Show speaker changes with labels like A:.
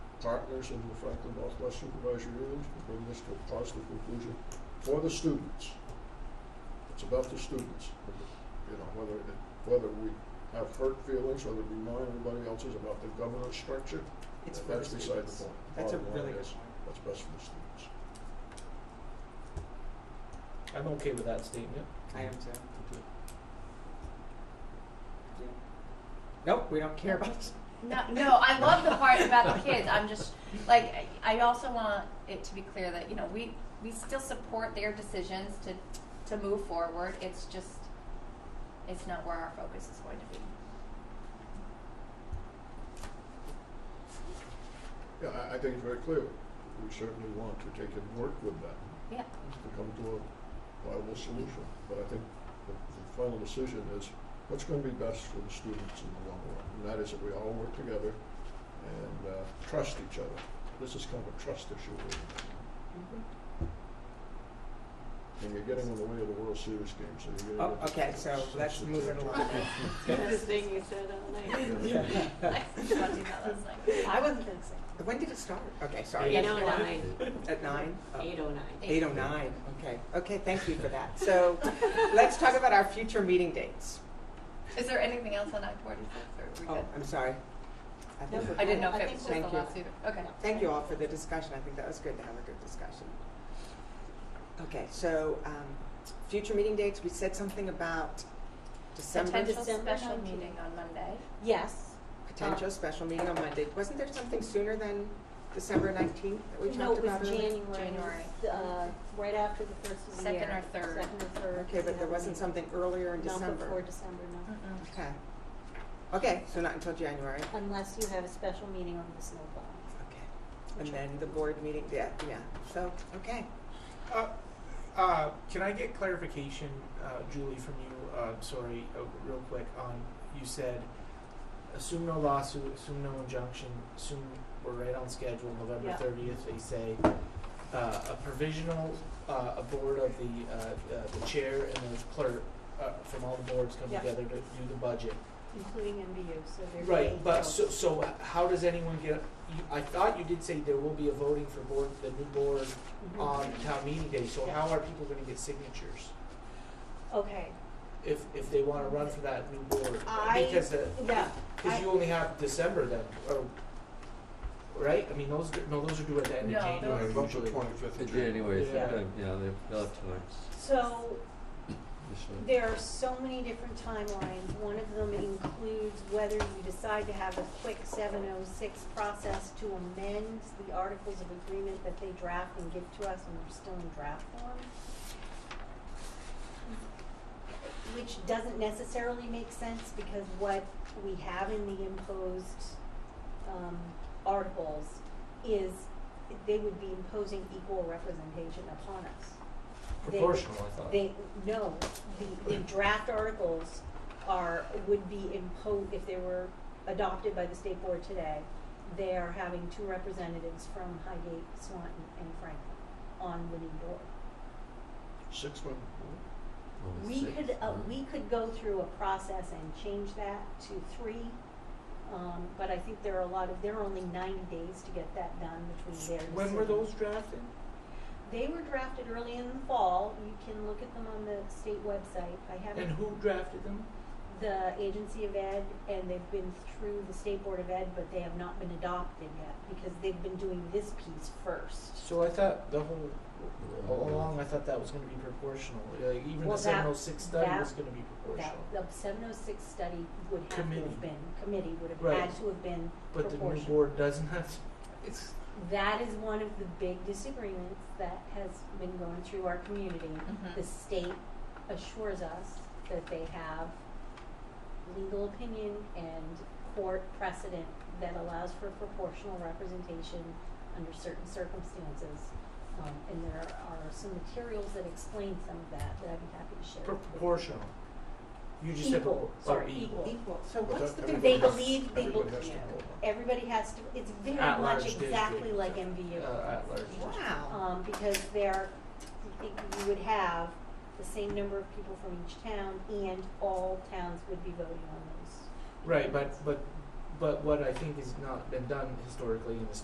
A: partners in the Franklin Northwest Supervisory Union to bring this to a positive conclusion for the students. It's about the students, you know, whether, it- whether we have hurt feelings, whether we mind anybody else's about the governance structure,
B: It's for the
A: that's beside the
B: students.
A: point.
B: That's a
A: Bottom line
B: really good
A: is,
B: point.
A: What's best for the students.
C: I'm okay with that statement.
B: I am too. Yeah. Nope, we don't care about this.
D: No, no, I love the part about the kids. I'm just like I I also want it to be clear that you know we we still support their decisions to to move forward. It's just it's not where our focus is going to be.
A: Yeah, I, I think it's very clear. We certainly want to take and work with them
D: Yeah.
A: to come to a viable solution. But I think the, the final decision is what's going to be best for the students in the long run. And that is that we all work together and uh, trust each other. This is kind of a trust issue. really.
B: Mm-hmm.
A: And you're getting in the way of the World Series game, so you're
B: Oh,
A: going to.
B: okay, so let's move it along.
E: The thing you said all night.
D: I was watching that last night.
E: I wasn't dancing.
B: When did it start? Okay, sorry.
E: Eight oh nine.
B: At nine? Oh.
E: Eight oh nine.
B: Eight oh nine, okay. Okay, thank you for that. So let's talk about our future meeting dates.
D: Is there anything else on Act 46 or are we
B: Oh,
D: good?
B: I'm sorry. I think
E: No.
B: we're-
D: I didn't know
E: I
D: if it
E: think
D: was
B: we're
D: just the
B: good.
D: lawsuit. Okay.
B: Thank you all for the discussion. I think that was good to have a good discussion. Okay, so um, future meeting dates, we said something about December,
D: Potential
E: December
D: special
E: 19th.
D: meeting on Monday.
E: Yes. Ah.
B: potential special meeting on Monday. Wasn't there something sooner than December 19th that we
E: No,
B: talked
E: it
B: about?
E: was
B: earlier?
E: January.
D: January.
E: Uh, right after the first of the
D: Second
E: year.
D: or third.
E: Second or third.
B: Okay, but there wasn't something earlier in
E: Not
B: December?
E: before December, no.
D: Mm-mm.
B: Okay. Okay, so not until January.
E: Unless you have a special meeting on the snowplow.
B: Okay. And then the board meeting, yeah, yeah. So, okay.
C: Uh, uh, can I get clarification, uh, Julie, from you? Uh, sorry, uh, real quick. On you said, assume no lawsuit, assume no injunction, assume we're right on schedule. November
E: Yeah.
C: thirtieth, they say uh, a provisional, uh, a board of the uh, uh, the chair and the clerk uh, from all the boards come
E: Yeah.
C: together to do the budget.
E: Including MBU, so they're.
C: Right,
E: being
C: but
E: held.
C: so, so how does anyone get, you, I thought you did say there will be a voting for board, the new board
E: Mhm.
C: on town meeting day, so how are people gonna get signatures?
B: uh,
E: Okay,
C: If, if they wanna run for that new board,
E: I-
C: because the,
E: yeah,
C: cause you only have December then, or, right? I mean, those, do- no, those are due at the end
D: No,
C: of January
D: those-
C: usually.
A: twenty-fifth
F: In January, so,
C: Yeah.
F: uh, yeah, they- they'll have time
E: so
F: this year.
E: There are so many different timelines. One of them includes whether you decide to have a quick seven oh six process to amend the articles of agreement that they draft and give to us and we're still in draft form. Which doesn't necessarily make sense because what we have in the imposed um articles is they would be imposing equal representation upon us they-
C: Proportional, I thought.
E: They, no, the, the draft articles are, would be imposed, if they were adopted by the state board today, they are having two representatives from Highgate, Swanton, and Franklin on the new board.
A: Six months.
F: Only
E: We
F: six,
E: could, uh,
F: huh?
E: we could go through a process and change that to three, um, but I think there are a lot of, there are only ninety days to get that done between there.
C: When were those drafted?
E: They were drafted early in the fall, you can look at them on the state website, I haven't.
C: And who drafted them?
E: the agency of ed and they've been through the state board of ed, but they have not been adopted yet because they've been doing this piece first.
C: So I thought the whole, all along, I thought that was gonna be proportional, like even the
E: Well, that-
C: seven oh six study
E: that-
C: was gonna be
E: That,
C: proportional.
E: the seven oh six study would have to
C: Committee.
E: have been, committee would have
C: Right.
E: had to have been
C: But the new
E: proportional.
C: board doesn't have, it's,
E: That is one of the big disagreements that has been going through our community.
D: Mhm.
E: The state assures us that they have legal opinion and court precedent that allows for proportional representation under certain circumstances. Um, and there are some materials that explain some of that that I'd be happy to share. with you.
C: proportional. You just said,
E: Equal,
C: propor-
E: sorry,
C: or equal.
E: equal.
B: Equal. So
A: But
B: what's
A: that-
B: the
A: everybody
B: big
E: They
A: has-
E: believe- they
A: everybody
E: be-
A: has to
B: yeah.
A: vote.
E: Everybody has to, it's very
C: At-large
E: much exactly
C: district.
E: like MVU.
C: Uh, at-large district.
B: Wow.
E: um, because there, you would have the same number of people from each town, and all towns would be voting on those.
C: Right, but, but, but what I think has not been done historically in this